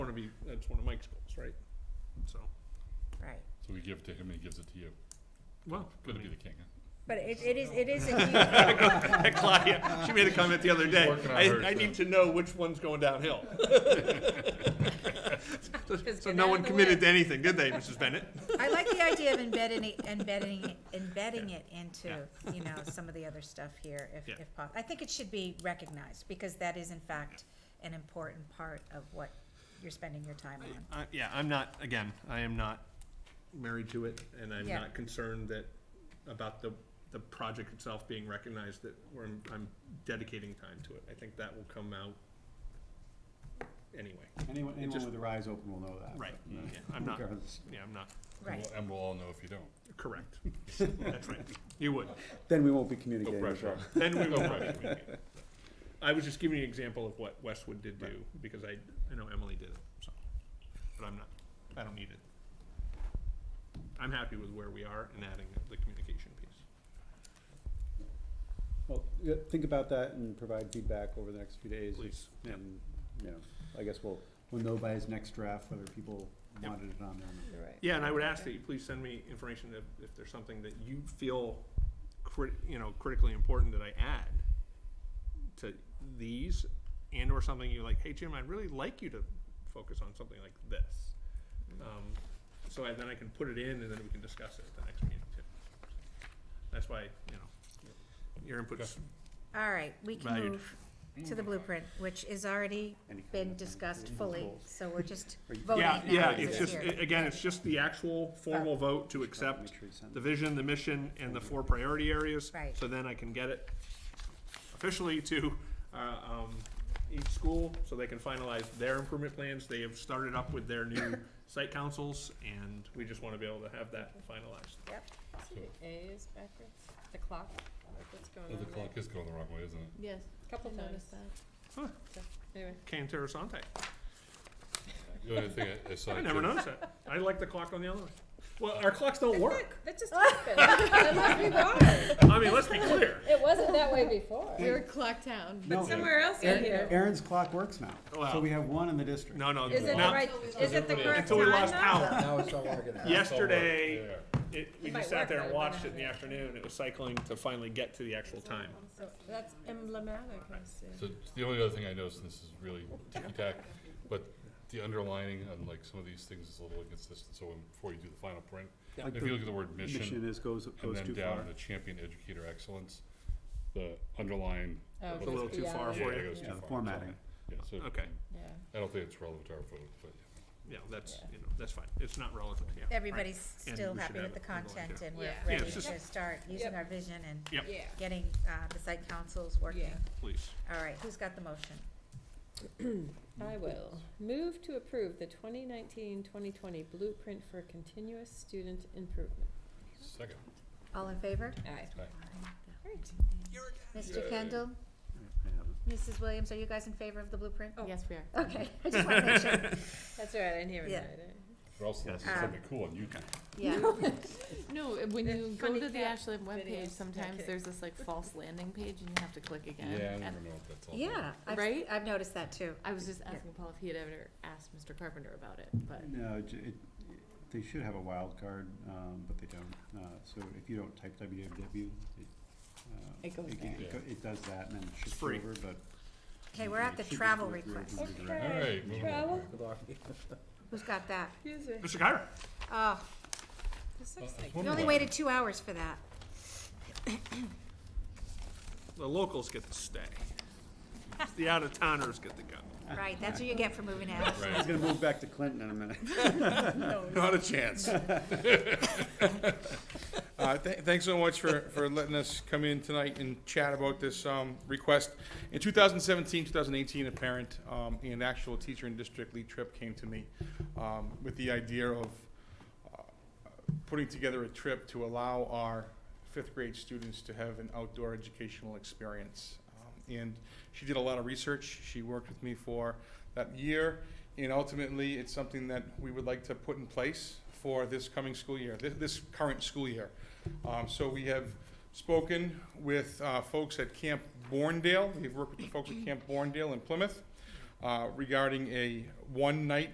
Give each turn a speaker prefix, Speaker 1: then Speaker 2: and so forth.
Speaker 1: of you, that's one of Mike's goals, right? So,
Speaker 2: right.
Speaker 3: So we give it to him and he gives it to you.
Speaker 1: well.
Speaker 3: Gotta be the king, huh?
Speaker 2: But it, it is, it is a huge,
Speaker 1: Claudia, she made a comment the other day,
Speaker 3: working on hers,
Speaker 1: I, I
Speaker 3: yeah.
Speaker 1: need to know which one's going downhill. So-
Speaker 4: Just
Speaker 1: So
Speaker 4: get
Speaker 1: no
Speaker 4: out
Speaker 1: one
Speaker 4: of the
Speaker 1: committed
Speaker 4: way.
Speaker 1: to anything, did they, Mrs. Bennett?
Speaker 2: I like the idea of embedding, it- embedding, it- embedding it into, you know, some of the other stuff here if,
Speaker 1: Yeah.
Speaker 2: if possible. I think it should be recognized because that is in fact an important part of what you're spending your time on.
Speaker 1: I- Uh, Yeah, I'm not, again, I am not married to it, and I'm
Speaker 2: Yeah.
Speaker 1: not concerned that, about the, the project itself being recognized, that we're, I'm dedicating time to it. I think that will come out anyway.
Speaker 5: Anyone, anyone
Speaker 1: just-
Speaker 5: with their eyes open will know that.
Speaker 1: Right,
Speaker 5: but, uh,
Speaker 1: yeah, I'm not,
Speaker 5: regardless.
Speaker 1: yeah, I'm not,
Speaker 3: And
Speaker 2: Right,
Speaker 3: we'll- And we'll all know if you don't.
Speaker 1: correct. That's right, you would.
Speaker 5: Then we won't be communicating with
Speaker 3: pressure.
Speaker 5: her.
Speaker 1: Then we
Speaker 3: No
Speaker 1: will
Speaker 3: pressure.
Speaker 1: probably. I was just giving you an example of what Westwood did do, because I, I know Emily did it, so, but I'm not, I don't need it. I'm happy with where we are and adding the communication piece.
Speaker 5: Well, yeah, think about that and provide feedback over the next few days.
Speaker 1: Please, yeah.
Speaker 5: And, you know, I guess we'll, we'll know by his next draft whether people
Speaker 1: Yep.
Speaker 5: wanted it on there or not.
Speaker 1: Yeah, and I would ask that you please send me information if, if there's something that you feel crit, you know, critically important that I add to these and or something you're like, hey, Jim, I'd really like you to focus on something like this. Um, so I, then I can put it in and then we can discuss it at the next meeting too. That's why, you know, your input's
Speaker 2: all right, we can
Speaker 1: Valued.
Speaker 2: move to the blueprint, which has already
Speaker 5: Any kind
Speaker 2: been
Speaker 5: of-
Speaker 2: discussed
Speaker 5: any
Speaker 2: fully,
Speaker 5: goals.
Speaker 2: so we're just
Speaker 5: Are you-
Speaker 2: voting
Speaker 1: Yeah,
Speaker 2: now.
Speaker 1: yeah,
Speaker 2: This
Speaker 1: it's
Speaker 2: is
Speaker 1: just,
Speaker 2: here.
Speaker 1: a- again, it's just the actual formal vote to accept
Speaker 5: Make sure you send
Speaker 1: the
Speaker 5: it.
Speaker 1: vision, the mission, and the four priority areas.
Speaker 2: Right.
Speaker 1: So then I can get it officially to, uh, um, each school, so they can finalize their improvement plans. They have started up with their new site councils, and we just wanna be able to have that finalized.
Speaker 2: Yep,
Speaker 4: See the A is backwards, the clock, like what's going
Speaker 3: Oh,
Speaker 4: on
Speaker 3: The
Speaker 4: there.
Speaker 3: clock is going the wrong way, isn't it?
Speaker 4: Yes, couple
Speaker 6: I
Speaker 4: times.
Speaker 6: noticed that.
Speaker 4: Anyway,
Speaker 1: Kay and Terrasante,
Speaker 3: The only thing I- I saw.
Speaker 1: I never
Speaker 3: too-
Speaker 1: noticed that. I like the clock on the other one. Well, our clocks don't work.
Speaker 4: that just happened. That must be why.
Speaker 1: I mean, let's be clear.
Speaker 4: It wasn't that way before.
Speaker 6: We were clocked down.
Speaker 5: No,
Speaker 4: Somewhere else in here.
Speaker 5: Aaron's clock works now,
Speaker 1: Oh, Wow.
Speaker 5: so we have one in the district.
Speaker 1: No, no.
Speaker 2: is it the
Speaker 1: not-
Speaker 2: right, is it the correct
Speaker 1: Until we lost
Speaker 2: time
Speaker 1: power.
Speaker 7: Now it's not working out.
Speaker 1: Yesterday, it, we
Speaker 4: It might
Speaker 1: just sat
Speaker 4: work
Speaker 1: there and
Speaker 4: though, but
Speaker 1: watched it in the afternoon, it was cycling to finally get to the actual time.
Speaker 4: So that's emblematic, I see.
Speaker 3: So the only other thing I noticed, and this is really ticky-tack, but the underlining on like some of these things is a little inconsistent, so when- before you do the final print,
Speaker 5: Yeah.
Speaker 3: if you look at the word
Speaker 5: Mission
Speaker 3: mission,
Speaker 5: is, goes,
Speaker 3: and
Speaker 5: goes
Speaker 3: then
Speaker 5: too
Speaker 3: down
Speaker 5: far.
Speaker 3: to champion educator excellence, the underline.
Speaker 4: Oh,
Speaker 1: It's a little too far
Speaker 3: Yeah,
Speaker 1: for
Speaker 3: it
Speaker 1: you.
Speaker 3: goes too
Speaker 5: Yeah,
Speaker 3: far.
Speaker 5: the formatting.
Speaker 3: Yeah, so
Speaker 1: Okay,
Speaker 4: Yeah.
Speaker 3: I don't think it's relevant to our vote, but
Speaker 1: yeah, that's, you know, that's fine, it's not relevant, yeah. right.
Speaker 2: Everybody's
Speaker 1: And
Speaker 2: still
Speaker 1: we should
Speaker 2: happy
Speaker 1: have
Speaker 2: with the
Speaker 1: it underlined
Speaker 2: content
Speaker 1: here.
Speaker 2: and we're
Speaker 4: Yeah.
Speaker 1: Yeah,
Speaker 2: ready
Speaker 1: it's
Speaker 2: to
Speaker 1: just-
Speaker 2: start using
Speaker 4: Yep.
Speaker 2: our vision and
Speaker 1: Yep,
Speaker 4: Yeah.
Speaker 2: getting, uh, the site councils working.
Speaker 4: Yeah.
Speaker 1: please.
Speaker 2: All right, who's got the motion?
Speaker 4: I will. Move to approve the 2019-2020 blueprint for continuous student improvement.
Speaker 3: second.
Speaker 2: All in favor?
Speaker 4: Aye. Great.
Speaker 2: Mr.
Speaker 3: Yay.
Speaker 2: Kendall,
Speaker 5: I have it.
Speaker 2: Mrs. Williams, are you guys in favor of the blueprint?
Speaker 4: Oh.
Speaker 6: Yes, we are.
Speaker 2: Okay, I just want to make sure.
Speaker 4: That's all right, I didn't hear it.
Speaker 2: Yeah.
Speaker 3: Or else that's
Speaker 2: Um,
Speaker 3: something cool on YouTube.
Speaker 2: Yeah,
Speaker 6: No, uh, when
Speaker 4: They're
Speaker 6: you go
Speaker 4: funny
Speaker 6: to the
Speaker 4: cat videos.
Speaker 6: Ashland webpage,
Speaker 4: Yeah,
Speaker 6: sometimes
Speaker 4: kidding.
Speaker 6: there's this like false landing page and you have to click again.
Speaker 3: Yeah, I
Speaker 6: And
Speaker 3: never know what that's all. about.
Speaker 2: yeah, I've,
Speaker 6: Right?
Speaker 2: I've noticed that too.
Speaker 6: I was just asking Paul if he had ever asked Mr. Carpenter about it, but
Speaker 5: No, it, it, they should have a wild card, um, but they don't, uh, so if you don't type www, it, uh.
Speaker 6: It goes
Speaker 5: can-
Speaker 3: there.
Speaker 5: It, go- it does that and then it shifts
Speaker 1: free.
Speaker 5: over, but.
Speaker 2: Okay, we're at the travel request.
Speaker 3: All right, moving on.
Speaker 4: Travel.
Speaker 7: Good luck.
Speaker 2: Who's got that?
Speaker 4: Excuse me.
Speaker 1: Mr. Kyra?
Speaker 2: Oh,
Speaker 4: This
Speaker 3: Uh,
Speaker 4: looks like.
Speaker 2: we only waited two hours for that.
Speaker 1: The locals get to stay. It's The out-of-towners get to go.
Speaker 2: Right, that's what you get for moving out.
Speaker 5: He's gonna move back to Clinton in a minute.
Speaker 7: Not a chance. Uh, th- Thanks so much for, for letting us come in tonight and chat about this um, request. In 2017, 2018, a parent um, and actual teacher in district, Lee Tripp, came to me um, with the idea of uh, putting together a trip to allow our fifth grade students to have an outdoor educational experience. Um, And she did a lot of research. She worked with me for that year. And ultimately, it's something that we would like to put in place for this coming school year, this, this current school year. Um, so we have spoken with, uh, folks at Camp Borndale. We've worked with the folks at Camp Borndale in Plymouth, uh, regarding a one-night